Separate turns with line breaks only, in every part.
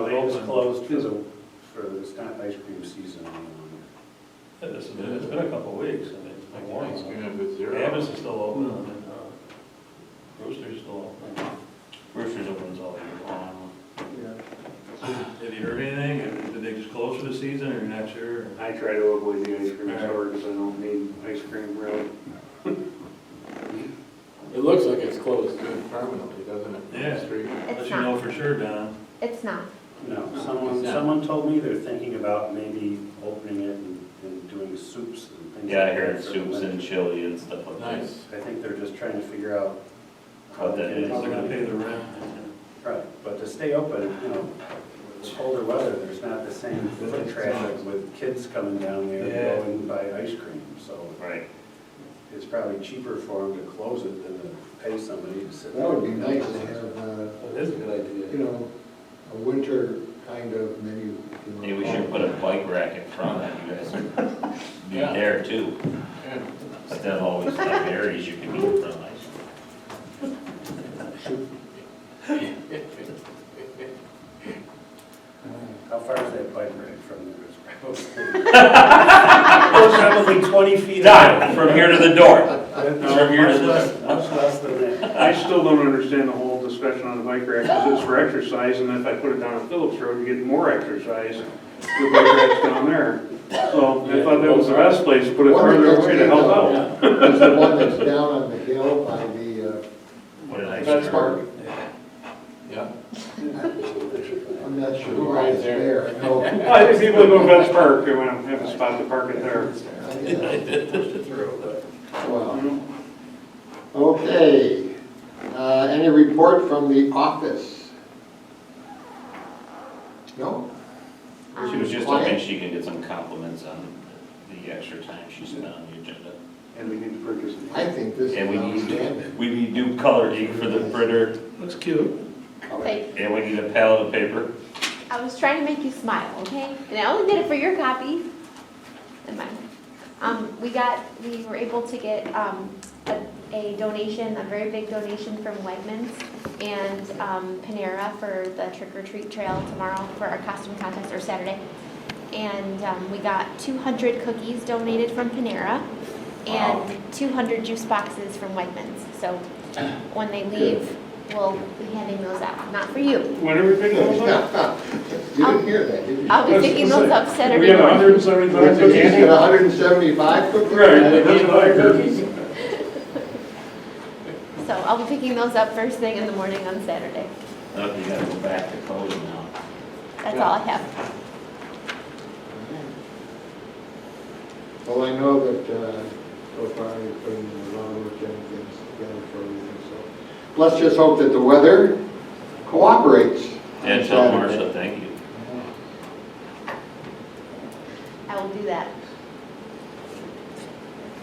No, they just closed for
There's
the,
a, for, it's not ice cream season any longer.
it's been, it's been a couple of weeks, and it's been warm.
It's gonna be
Amos
zero.
is still open, and, uh, Rooster's still open. Rooster's opens all year long. Have you heard anything? Did they just close for the season, or not sure?
I try to avoid the ice cream store because I don't need ice cream really.
It looks like it's closed permanently, doesn't it?
Yeah.
Street.
Unless
It's
you know
not,
for sure, Don.
it's not.
No, someone,
No.
someone told me they're thinking about maybe opening it and, and doing soups and things.
Yeah, I
like that
heard
for the
soups and
winter.
chili and stuff like that.
Nice.
I think they're just trying to figure out.
How that
to get
is.
They're
it
gonna
done.
pay the rent.
Right, but to stay open, you know, it's colder weather, there's not the same foot traffic with kids coming down there
Yeah.
to go and buy ice cream, so
Right.
it's probably cheaper for them to close it than to pay somebody to sit.
That would be nice to have, uh,
That is a good
you know, a winter kind of menu. if you wanna
Maybe we
call
should
it.
put a bike rack in front and you guys could be
Yeah.
there too.
Yeah.
Instead of always the berries, you could be in front of
How far is that bike ride from there? It's Probably twenty feet.
Done, from here to the door.
From
From here to the-
Much less than that.
I still don't understand the whole discussion on the bike rack, because it's for exercise, and if I put it down on Phillips Road, you get more exercise. The bike rack's down there, so I thought that was the best place to put it
One
further
that's
away to
down-
help out.
Is the one that's down on the hill by the, uh,
What a nice
That's
turn.
park. Yeah.
I'm not sure
Who
why
rides
it's
there?
there. No, I-
I think people go to Vets Park, they want to have a spot to park it there.
uh,
Through.
well, Okay, uh, any report from the office? No?
She
Um,
was just
Quiet.
hoping she could get some compliments on the extra time she spent on the agenda.
And we need to purchase it.
I think this is
And we need,
outstanding.
we need new color ink for the printer,
Looks cute.
Like,
and we need a palette of paper.
I was trying to make you smile, okay? And I only did it for your copy and mine. Um, we got, we were able to get, um, a, a donation, a very big donation from Wegmans and, um, Panera for the trick or treat trail tomorrow for our costume contest or Saturday. And, um, we got two hundred cookies donated from Panera and two hundred juice boxes from Wegmans. So when they leave, we'll be handing those out, not for you.
When are we picking those up?
You didn't hear that, did you?
I'll be picking those up
We have
Saturday morning.
hundred and seventy-five
You
cookies.
got hundred and seventy-five cookies?
So I'll be picking those up first thing in the morning on Saturday.
Oh, you gotta go back to closing now.
That's all I have.
Well, I know that uh, so far you've putting a lot of work in things together for everything, so. Let's just hope that the weather cooperates. on
And tell
Saturday.
Marcia, thank you.
I will do that.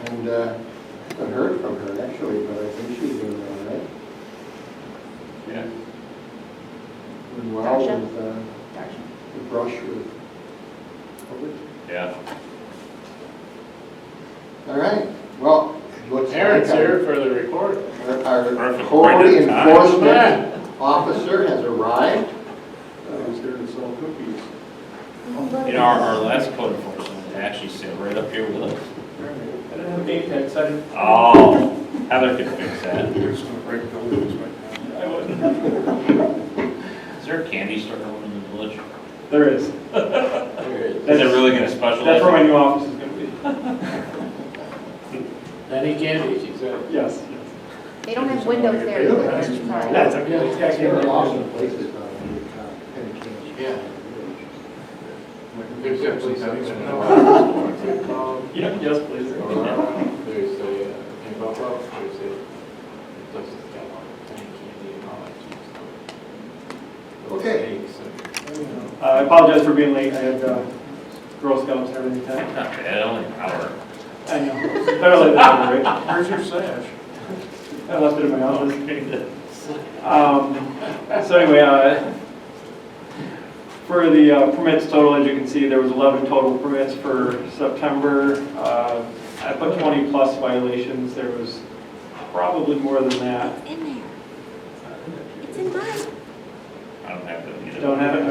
And uh, I haven't heard from her actually, but I think she's doing all right.
Yeah.
Doing well
Gotcha.
with uh,
Darn.
the brush with COVID.
Yeah.
All right, well, let's.
Aaron's here for the report.
Our our
Perfect.
code
Right in time.
enforcement officer has arrived.
I was there Uh, to sell cookies.
You know, our, our last code enforcement actually sat right up here with us.
I didn't have name tags, I didn't.
Oh, Heather could fix that.
We're just gonna break buildings right now.
I wouldn't.
Is there a candy store going in the village? Is
There is.
it really gonna
That's where my
specialize?
new office is gonna be.
Any candy, she said.
Yes.
They don't have windows there either. Sorry.
That's okay. It's got
There are lots
candy.
of places on the uh, in Kansas.
Yeah. There's
There's
definitely
something
something.
about-
Yeah, yes, please.
Uh,
There's a, uh, in Buffalo, there's a, it does got all the candy and all that kind of stuff.
Okay.
Cakes and-
Uh, I apologize for being late, I had uh, Girl Scouts and everything
Not
tonight.
bad, only an hour.
I know. Better late than never, right?
Where's your sash?
I left it in my office. Um, So anyway, uh, for the uh, permits total, as you can see, there was 11 total permits for September. Uh, I put 20 plus violations, there was probably more than that.
In there. It's in mine.
I don't have to.
Don't have it?